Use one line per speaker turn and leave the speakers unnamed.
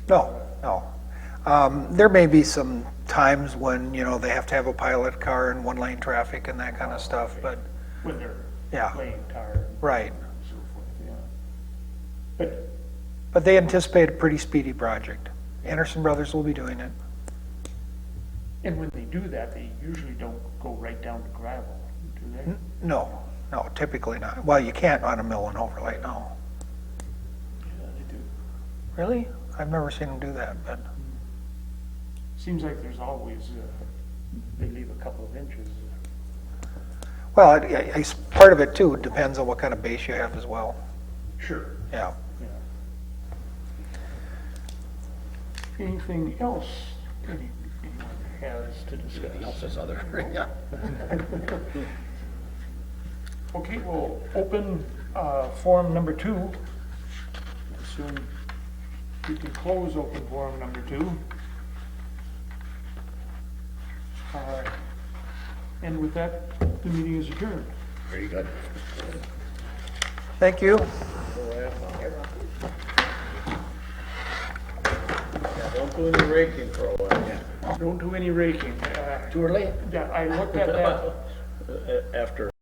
No, no. Um, There may be some times when, you know, they have to have a pilot car and one-lane traffic and that kind of stuff, but,
when they're
Yeah.
playing car
right.
and so forth, yeah. But
But they anticipate a pretty speedy project. Anderson Brothers will be doing it.
And when they do that, they usually don't go right down to gravel, do
Hmm.
they?
No, no, typically not. Well, you can't on a mill and overlay, no.
Yeah, they do.
Really? I've never seen them do that, but,
Seems like there's always, uh, they leave a couple of inches.
well, it- it- it's, part of it too depends on what kind of base you have as well,
Sure.
yeah.
Anything else any- anyone has to discuss?
This other, yeah.
Okay, we'll open uh, forum number two. Soon we can close open forum number two. Uh, And with that, the meeting is adjourned.
Very good.
Thank you.
Don't do any raking for a while,
Don't do any raking. Uh,
Too early?
Yeah, I looked at that
uh, after